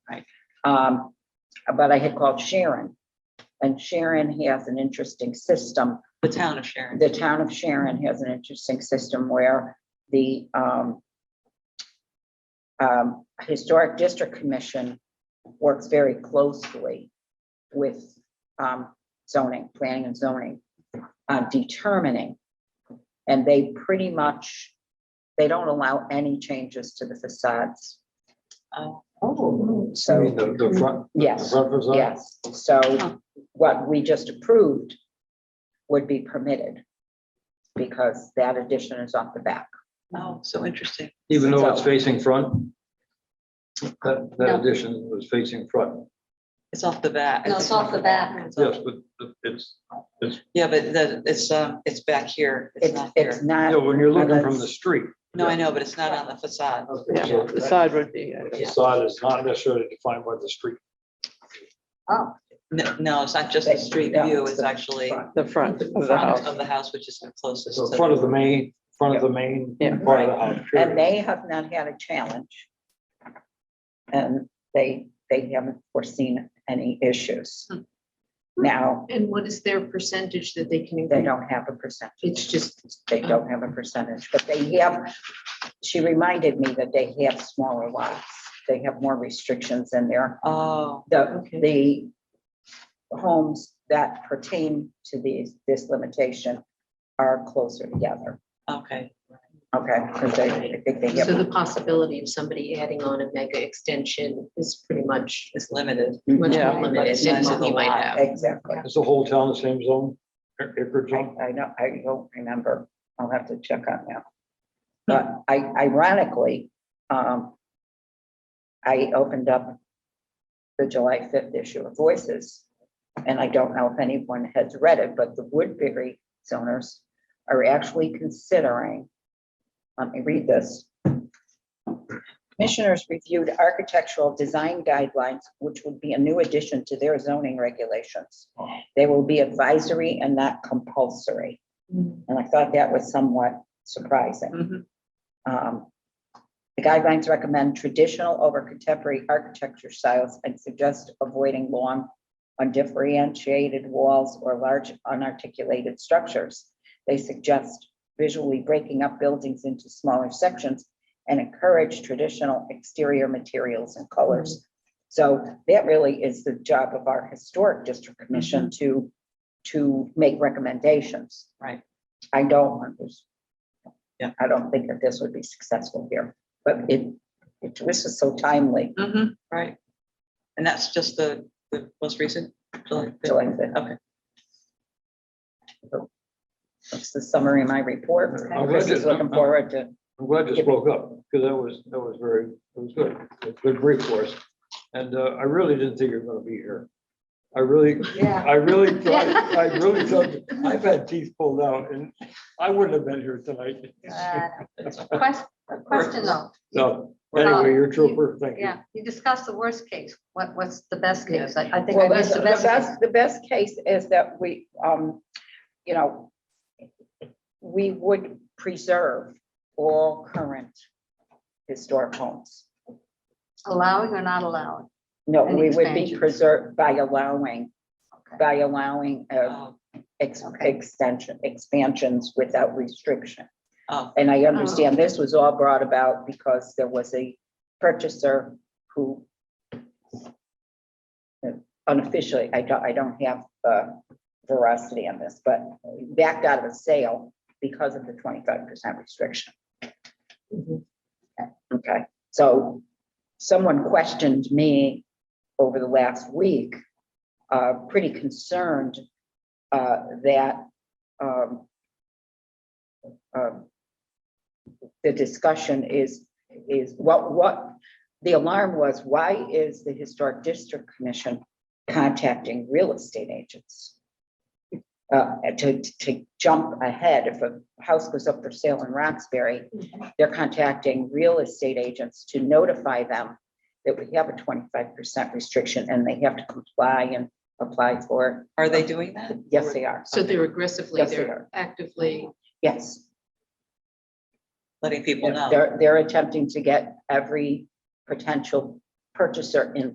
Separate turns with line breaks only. Um, but I had called Sharon. And Sharon has an interesting system.
the town of Sharon.
The town of Sharon has an interesting system where the, um, um, Historic District Commission works very closely with, um, zoning, planning and zoning, uh, determining. And they pretty much, they don't allow any changes to the facades.
Oh.
I
So,
mean, the, the front. the
yes.
front facade?
Yes, so what we just approved would be permitted because that addition is off the back.
Oh, so interesting.
Even though it's
So-
facing front? That,
No.
that addition was facing front,
It's off the bat.
No, it's off the back.
It's off-
yes, but it's,
Yeah, but the, it's, um, it's back here. It's
It's,
not
it's
here.
you know,
not,
when you're looking from the street.
No, I know, but it's not on the facade.
Okay,
Yeah,
so
the
that-
side would be, uh,
the
yeah.
Facade is not necessarily defined by the street.
No, no, it's not just the street
Yeah,
view.
it's
It's
the
actually
front.
the front of the
front
house.
of the house, which is the closest
So
to.
front of the main, front of the main
Yeah.
part of the house.
and
period.
they have not had a challenge. And they, they haven't foreseen any issues. Now,
And what is their percentage that they can
they
increase?
don't have a percentage.
It's just,
They don't have a percentage, but they have, she reminded me that they have smaller lots. They have more restrictions in there.
Oh,
the,
Okay.
the homes that pertain to these, this limitation are closer together,
okay.
okay? Because they, I think they
so
have,
the possibility of somebody adding on a mega extension is pretty much
It's limited.
much
Yeah.
more limited than what we might have.
exactly.
Is the whole town the same zone, ac- acreage
I,
zone?
I know, I don't remember. I'll have to check on that. But I ironically, um, I opened up the July fifth issue of Voices. And I don't know if anyone has read it, but the Woodbury zoners are actually considering, let me read this. Commissioners reviewed architectural design guidelines, which would be a new addition to their zoning regulations. They will be advisory and not compulsory. And I thought that was somewhat surprising.
Mhm.
Um, The guidelines recommend traditional over contemporary architecture styles and suggest avoiding long, undifferentiated walls or large unarticulated structures. They suggest visually breaking up buildings into smaller sections and encourage traditional exterior materials and
Mm-hmm.
colors. So that really is the job of our historic district commission to, to make recommendations.
Mm-hmm. Right.
I don't want this.
Yeah.
I don't think that this would be successful here, but it, it, this is so timely,
Mhm, Right. And that's just the, the most recent. July fifth.
so I think.
Okay.
That's the summary of my report.
I'm
Chris
glad
is
that-
looking forward to,
I'm glad you spoke up, because that was, that was very, it was good, a good brief for us. And uh, I really didn't think you were gonna be here. I really,
Yeah.
I really, thought- I really thought, I've had teeth pulled out and I wouldn't have been here tonight.
Uh, Question, question though,
So anyway, you're a trooper, thank you.
yeah, you discussed the worst case, what, what's the best case? I, I think I
Well, that's,
missed
the
the best case.
best, the best case is that we, um, you know, we would preserve all current historic homes.
Allowing or not allowing?
No,
And
we would be
expansions.
preserved by allowing,
Okay.
by allowing, uh,
Oh,
ex-
Okay.
extension, expansions without restriction.
oh,
And I understand this was all brought about because there was a purchaser who uh, unofficially, I don't, I don't have uh, veracity on this, but backed out of a sale because of the twenty-five percent restriction.
Mhm.
Okay, so someone questioned me over the last week, uh, pretty concerned uh, that um, um, the discussion is, is what, what, the alarm was, why is the Historic District Commission contacting real estate agents? Uh, to, to jump ahead, if a house goes up for sale in Roxbury, they're contacting real estate agents to notify them that we have a twenty-five percent restriction and they have to comply and apply for
Are they doing that?
it. Yes, they are.
So they're aggressively,
Yes, they
they're
are.
actively,
Yes.
Letting people know.
They're, they're attempting to get every potential purchaser in